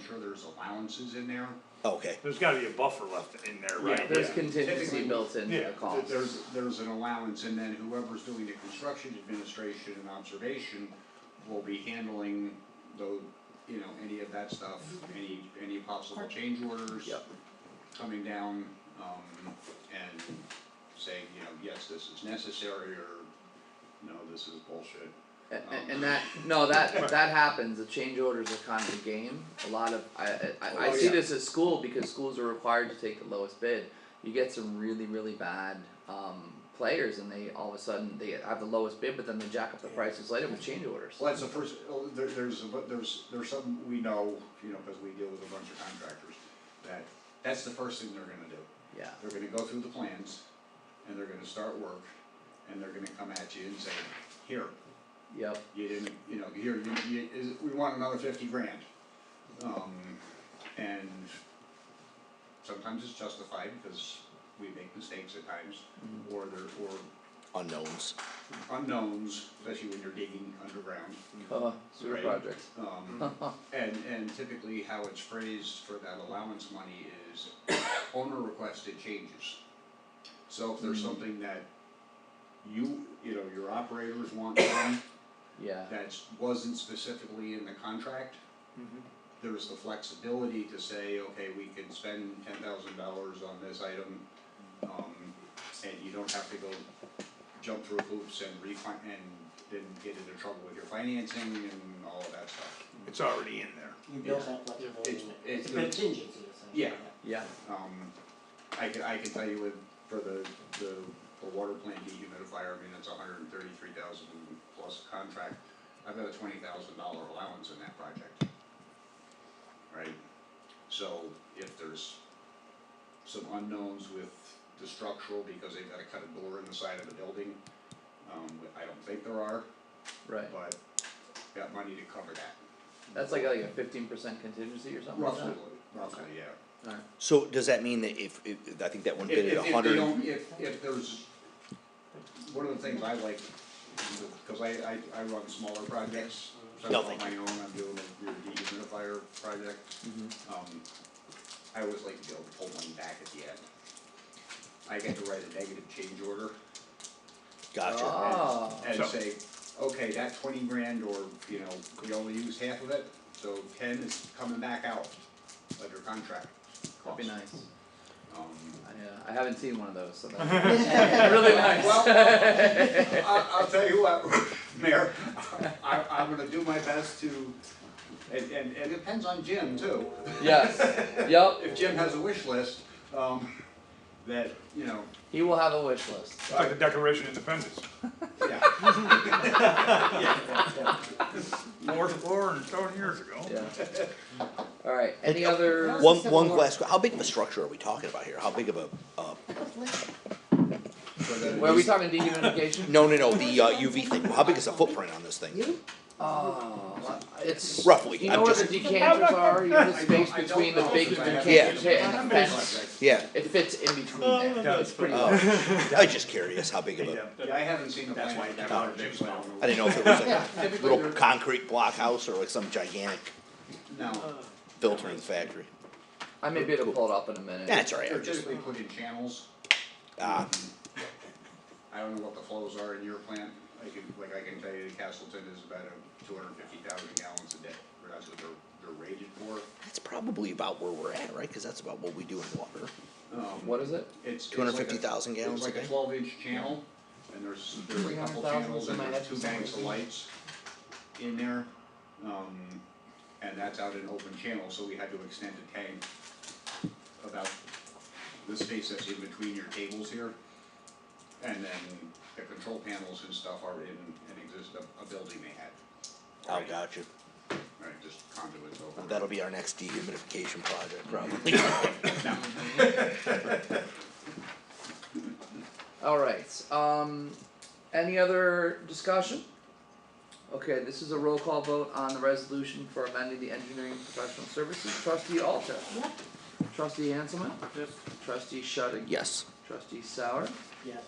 sure there's allowances in there. Okay, There's gotta be a buffer left in there, right? There's Yeah. contingency Typically, built into yeah, the cost. That there's, there's an allowance, and then whoever's doing the construction administration and observation will be handling the, you know, any of that stuff, any, any possible change orders. Yep. Coming down, um, and saying, you know, yes, this is necessary, or no, this is bullshit. And, and that, no, that, that happens, the change orders are kind of a game, a lot of, I, I- I, I Oh, see yeah. this at school because schools are required to take the lowest bid. You get some really, really bad, um, players and they, all of a sudden, they have the lowest bid, but then they jack up the prices later with change orders. Well, that's the first, oh, there, there's, a bu- there's, there's something we know, you know, cause we deal with a bunch of contractors, that, that's the first thing they're gonna do. Yeah, They're gonna go through the plans, and they're gonna start work, and they're gonna come at you and say, here, yep, you didn't, you know, here, you, you, is, we want another fifty grand. Um, and sometimes it's justified, because we make mistakes at times, or there, or unknowns. unknowns, especially when you're digging underground. uh, sewer Right. projects. Um, and, and typically how it's phrased for that allowance money is owner requested changes. So if there's something that you, you know, your operators want done, Yeah, that wasn't specifically in the contract, there was the flexibility to say, okay, we can spend ten thousand dollars on this item, um, and you don't have to go jump through hoops and refin- and then get into trouble with your financing and all of that stuff. It's already in there. You build that flexibility It's- in it. it's It's a the- contingency essentially. Yeah. yeah, Um, I can, I can tell you with, for the, the, the water plant dehumidifier, I mean, it's a hundred and thirty-three thousand plus contract. I've got a twenty thousand dollar allowance in that project. Right? So if there's some unknowns with the structural, because they've gotta cut a door in the side of the building, um, I don't think there are, right, but got money to cover that. that's like, like a fifteen percent contingency or something like Roughly, that? roughly, yeah. Alright, So does that mean that if, if, I think that one If, bid at if, a if they hundred, don't, if, if there's, one of the things I like, cause I, I, I run smaller projects, so I'm No, on thank my own, I'm doing a weird dehumidifier project. Mm-hmm. Um, I always like to be able to pull one back at the end. I get to write a negative change order Uh, gotcha, Ah. and, and So- say, okay, that twenty grand or, you know, we only use half of it, so ten is coming back out under contract cost. that'd be nice, Um, I, uh, I haven't seen one of those, so that's really nice. Well, I, I'll tell you what, Mayor, I, I'm gonna do my best to, and, and, and it depends on Jim too. Yes. Yep. If Jim has a wish list, um, that, you know, He will have a wish list. It's like the Declaration of Independence. yeah, War, war, and seven oh, years ago. Yeah. All right. Any other? uh, one, one glass, how big of a structure are we talking about here, how big of a, uh, so that. Were we talking dehumidification? no, no, no, the uh, UV thing, how big is the footprint on this thing? Oh, it's Roughly, You I'm know where the just- decanters are? You know the I don't- space I don't between the know, big because I haven't decanters decanters been on and the that fence. project. Yeah, It fits in between there. Yeah. It's pretty. oh, large. I was just curious how big of a, Yeah, I haven't seen the That's plan. why I've that got a one big jumps plan. out. I didn't know if it was like Yeah, a typically little they're, concrete blockhouse or like some gigantic no, filtering factory. I may be able to pull it up in a minute. That's all right, they're I'm just, typically put in channels. ah, I don't know what the flows are in your plant, I can, like, I can tell you that Castleton is about a two hundred and fifty thousand gallons a day, or that's what they're, they're rated for. that's probably about where we're at, right, cause that's about what we do in water. Um, What is it? It's. it's like a- 250,000 gallons It's a like a day? twelve inch channel, and there's, there's a couple 300,000 channels and there's something like that two for some banks of reason. lights in there. Um, and that's out in open channel, so we had to extend the tank about the space that's in between your tables here. And then the control panels and stuff are in, and exist, a, a building they had. Oh, Right, gotcha, Right, just conduits over. that'll be our next dehumidification project, probably. All right. Um, any other discussion? Okay, this is a roll call vote on the resolution for amending the engineering professional services. Trustee Alter. Yep. Trustee Hanselman. Yes. Trustee Shuddig. Yes. Trustee Sauer. Yes.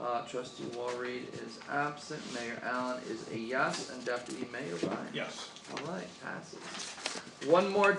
Uh, trustee Walreed is absent. Mayor Allen is a yes, and deputy mayor Ryan. Yes. All right, passes. One more